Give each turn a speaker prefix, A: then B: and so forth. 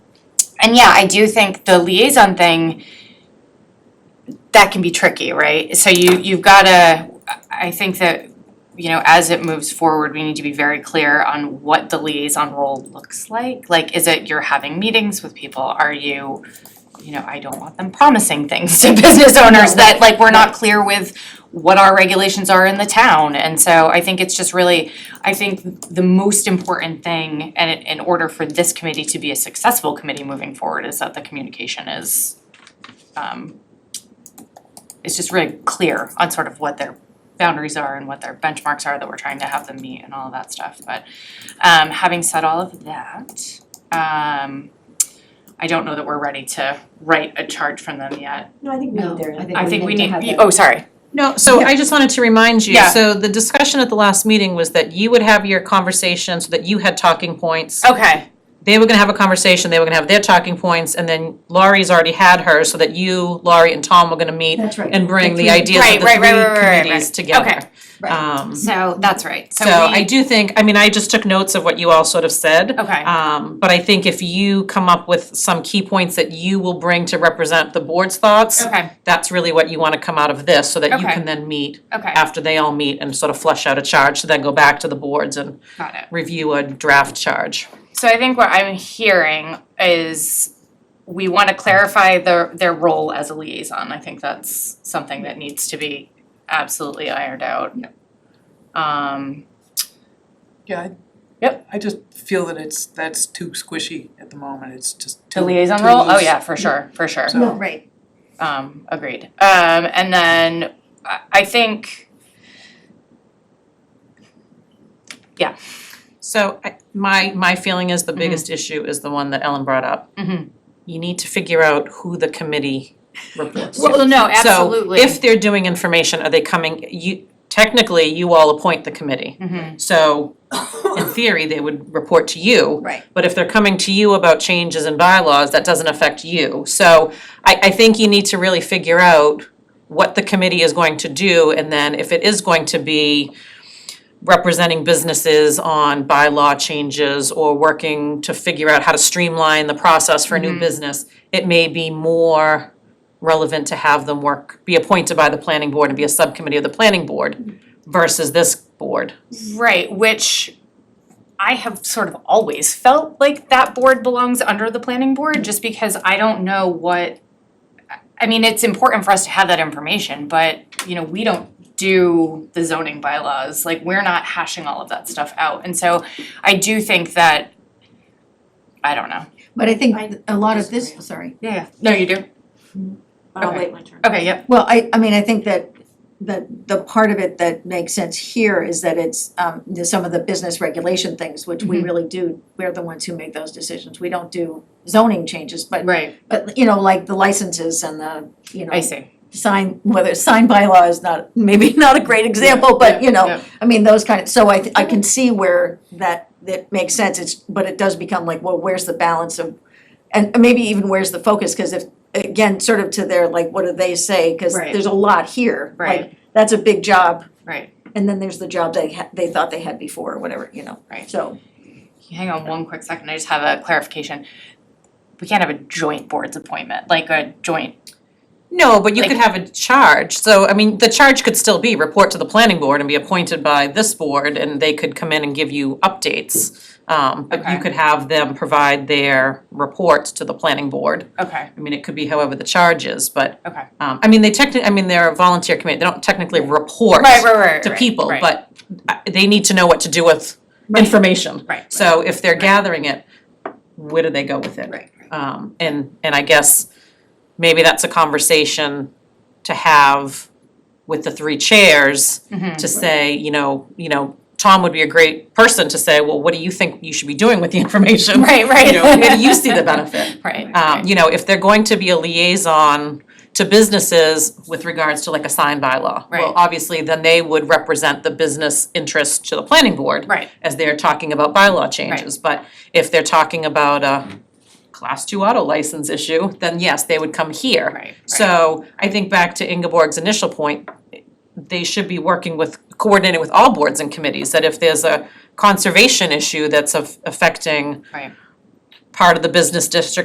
A: And yeah, I do think the liaison thing, that can be tricky, right? So you, you've gotta, I think that, you know, as it moves forward, we need to be very clear on what the liaison role looks like. Like, is it you're having meetings with people, are you, you know, I don't want them promising things to business owners that, like, we're not clear with what our regulations are in the town, and so I think it's just really, I think the most important thing, and in- in order for this committee to be a successful committee moving forward, is that the communication is, um, it's just really clear on sort of what their boundaries are and what their benchmarks are that we're trying to have them meet and all of that stuff, but, um, having said all of that, um, I don't know that we're ready to write a charge from them yet.
B: No, I think
C: No,
B: there.
C: I think
A: I think we need,
C: have that.
A: oh, sorry,
D: No, so I just wanted to remind you,
A: Yeah.
D: so the discussion at the last meeting was that you would have your conversations, that you had talking points.
A: okay,
D: They were gonna have a conversation, they were gonna have their talking points, and then Laurie's already had hers, so that you, Laurie, and Tom were gonna meet
C: That's right.
D: and bring the
C: Right,
D: ideas
A: right,
D: of the
A: right, right, right,
D: three
A: right,
D: committees
A: right.
D: together.
A: Okay.
C: Right.
D: Um,
A: so that's right, so
D: so
A: we,
D: I do think, I mean, I just took notes of what you all sort of said.
A: Okay.
D: Um, but I think if you come up with some key points that you will bring to represent the board's thoughts,
A: Okay,
D: that's really what you wanna come out of this, so that you
A: Okay.
D: can then meet
A: okay,
D: after they all meet and sort of flush out a charge to then go back to the boards and
A: got it.
D: review a draft charge.
A: So I think what I'm hearing is we want to clarify their their role as a liaison. I think that's something that needs to be absolutely ironed out. Um,
E: Yeah. I-
A: Yep.
E: I just feel that it's, that's too squishy at the moment, it's just too.
A: the liaison
E: too
A: role, oh
E: loose.
A: yeah, for sure, for sure.
E: So-
C: No, right,
A: Um, agreed. Um, and then I, I think,
D: So I, my, my feeling is the biggest issue is the one that Ellen brought up.
A: Mhm.
D: You need to figure out who the committee reports to.
A: well, no, absolutely.
D: So if they're doing information, are they coming, you, technically, you all appoint the committee.
A: Mhm.
D: So in theory, they would report to you.
C: right.
D: But if they're coming to you about changes in bylaws, that doesn't affect you. So I, I think you need to really figure out what the committee is going to do, and then if it is going to be representing businesses on bylaw changes or working to figure out how to streamline the process for a new business, it may be more relevant to have them work, be appointed by the planning board and be a subcommittee of the planning board versus this board.
A: Right, which I have sort of always felt like that board belongs under the planning board, just because I don't know what, I mean, it's important for us to have that information, but, you know, we don't do the zoning bylaws, like, we're not hashing all of that stuff out, and so I do think that, I don't know.
C: But I think a lot of this,
B: disagree.
C: sorry.
A: Yeah, yeah. No, you do?
B: I'll
A: Okay.
B: wait my turn.
A: Okay, yep,
C: Well, I, I mean, I think that the, the part of it that makes sense here is that it's, um, the- some of the business regulation things, which we
A: Mhm.
C: really do, we're the ones who make those decisions. We don't do zoning changes, but,
A: right,
C: but, you know, like the licenses and the, you know,
A: I see.
C: sign, whether sign bylaw is not, maybe not a great example, but, you know,
A: Yeah,
C: I mean, those kind of, so I, th- I can see where that, that makes sense, it's, but it does become like, well, where's the balance of, and maybe even where's the focus, cause if, again, sort of to their, like, what do they say, cause
A: Right.
C: there's a lot here, like,
A: Right.
C: that's a big job,
A: Right,
C: and then there's the job they ha- they thought they had before, or whatever, you know,
A: Right.
C: so.
A: hang on one quick second, I just have a clarification. We can't have a joint boards appointment, like a joint
D: No, but you could
A: Like-
D: have a charge, so, I mean, the charge could still be report to the planning board and be appointed by this board, and they could come in and give you updates. Um, but
A: Okay.
D: you could have them provide their reports to the planning board,
A: Okay,
D: I mean, it could be however the charge is, but.
A: Okay.
D: Um, I mean, they technically, I mean, they're a volunteer committee, they don't technically report
A: right, right, right,
D: to
A: right,
D: people,
A: right.
D: but uh, they need to know what to do with
C: Right.
D: information.
A: Right.
D: So if they're gathering it, where do they go with it?
C: Right,
D: Um, and, and I guess maybe that's a conversation to have with the three chairs
A: Mhm.
D: to say, you know, you know, Tom would be a great person to say, well, what do you think you should be doing with the information?
A: Right, right.
D: You know, where do you see the benefit?
A: Right,
D: Um,
A: right,
D: you know, if they're going to be a liaison to businesses with regards to like a sign bylaw.
A: Right.
D: Well, obviously, then they would represent the business interest to the planning board
A: right,
D: as they're talking about bylaw changes. But if they're talking about a class two auto license issue, then yes, they would come here.
A: right, right.
D: So I think back to Ingeborg's initial point, they should be working with, coordinating with all boards and committees, that if there's a conservation issue that's af- affecting
A: Right.
D: part of the business district